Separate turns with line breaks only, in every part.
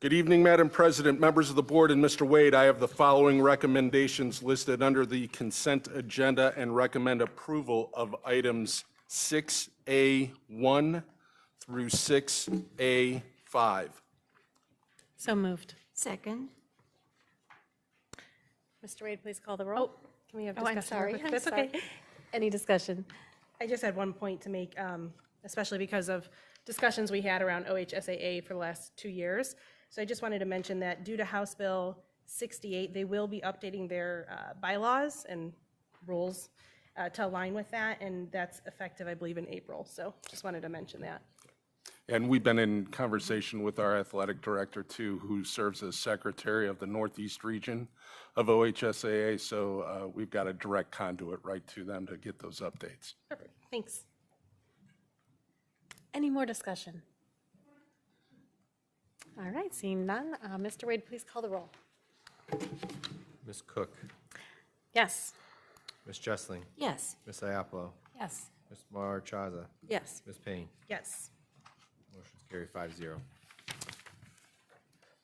Good evening, Madam President, members of the board, and Mr. Wade. I have the following recommendations listed under the consent agenda and recommend approval of items 6A1 through 6A5.
So moved.
Second.
Mr. Wade, please call the roll.
Can we have
Oh,
discussion?
I'm sorry.
real quick?
I'm
That's
sorry.
okay.
Any discussion?
I just had one point to make, um, especially because of discussions we had around OHSAA for the last two years. So I just wanted to mention that due to House Bill 68, they will be updating their uh, bylaws and rules uh, to align with that, and that's effective, I believe, in April. So just wanted to mention that.
And we've been in conversation with our athletic director, too, who serves as secretary of the Northeast region of OHSAA, so uh, we've got a direct conduit right to them to get those updates.
Perfect. Thanks.
Any more discussion? All right, seeing none. uh, Mr. Wade, please call the roll.
Ms. Cook,
Yes.
Ms. Jessling,
Yes.
Ms. Iapolo,
Yes.
Ms. Marchaza,
Yes.
Ms. Payne.
Yes.
Motion's carried five zero.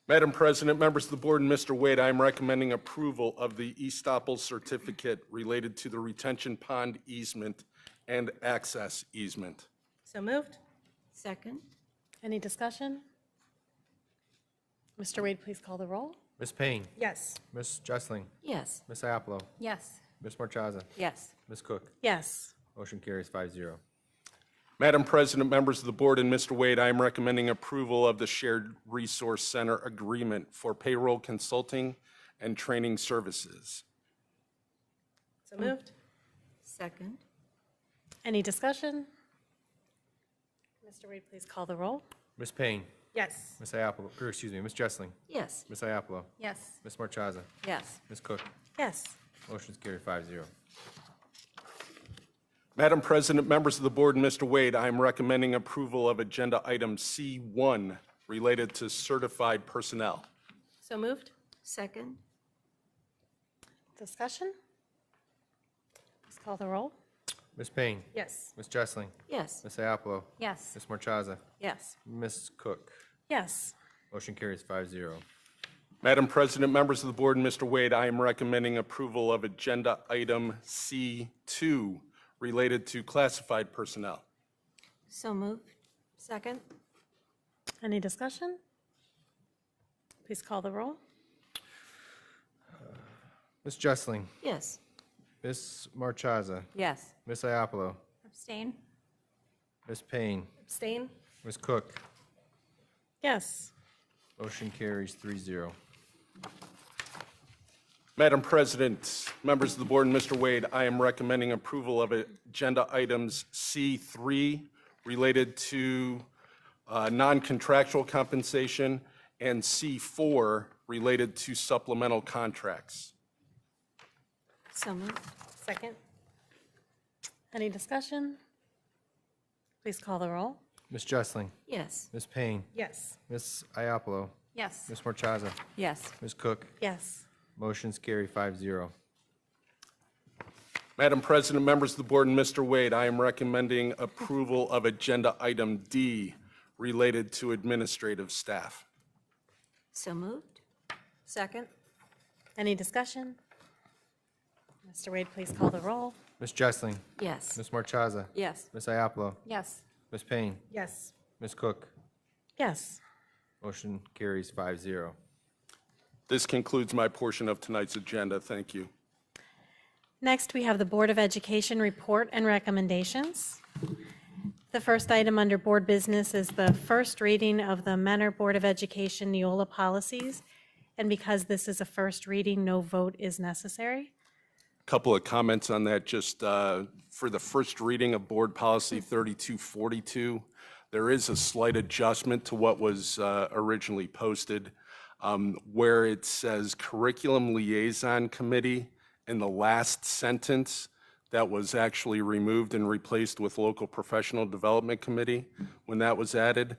Madam President, members of the board, and Mr. Wade, I am recommending approval of the estoppel certificate related to the retention pond easement and access easement.
So moved?
Second.
Any discussion? Mr. Wade, please call the roll.
Ms. Payne,
Yes.
Ms. Jessling,
Yes.
Ms. Iapolo,
Yes.
Ms. Marchaza,
Yes.
Ms. Cook.
Yes.
Motion carries five zero.
Madam President, members of the board, and Mr. Wade, I am recommending approval of the Shared Resource Center Agreement for Payroll Consulting and Training Services.
So moved?
Second.
Any discussion? Mr. Wade, please call the roll.
Ms. Payne,
Yes.
Ms. Iapolo, or excuse me, Ms. Jessling,
Yes.
Ms. Iapolo,
Yes.
Ms. Marchaza,
Yes.
Ms. Cook.
Yes.
Motion's carried five zero.
Madam President, members of the board, and Mr. Wade, I am recommending approval of Agenda Item C1 related to certified personnel.
So moved?
Second.
Discussion? Please call the roll.
Ms. Payne,
Yes.
Ms. Jessling,
Yes.
Ms. Iapolo,
Yes.
Ms. Marchaza,
Yes.
Ms. Cook.
Yes.
Motion carries five zero.
Madam President, members of the board, and Mr. Wade, I am recommending approval of Agenda Item C2 related to classified personnel.
So moved. Second.
Any discussion? Please call the roll.
Ms. Jessling,
Yes.
Ms. Marchaza,
Yes.
Ms. Iapolo,
Abstain.
Ms. Payne,
Abstain?
Ms. Cook.
Yes.
Motion carries three zero.
Madam President, members of the board, and Mr. Wade, I am recommending approval of Agenda Items C3 related to uh, non-contractual compensation and C4 related to supplemental contracts.
So moved.
Second?
Any discussion? Please call the roll.
Ms. Jessling,
Yes.
Ms. Payne,
Yes.
Ms. Iapolo,
Yes.
Ms. Marchaza,
Yes.
Ms. Cook.
Yes.
Motions carry five zero.
Madam President, members of the board, and Mr. Wade, I am recommending approval of Agenda Item D related to administrative staff.
So moved. Second.
Any discussion? Mr. Wade, please call the roll.
Ms. Jessling,
Yes.
Ms. Marchaza,
Yes.
Ms. Iapolo,
Yes.
Ms. Payne,
Yes.
Ms. Cook.
Yes.
Motion carries five zero.
This concludes my portion of tonight's agenda. Thank you.
Next, we have the Board of Education report and recommendations. The first item under Board Business is the first reading of the Mentor Board of Education Neola policies. And because this is a first reading, no vote is necessary.
Couple of comments on that, just uh, for the first reading of Board Policy 3242, there is a slight adjustment to what was uh, originally posted, um, where it says Curriculum Liaison Committee in the last sentence, that was actually removed and replaced with Local Professional Development Committee when that was added.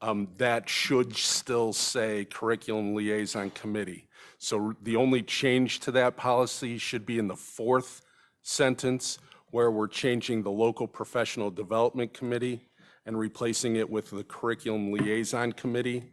um, that should still say Curriculum Liaison Committee. So the only change to that policy should be in the fourth sentence, where we're changing the Local Professional Development Committee and replacing it with the Curriculum Liaison Committee.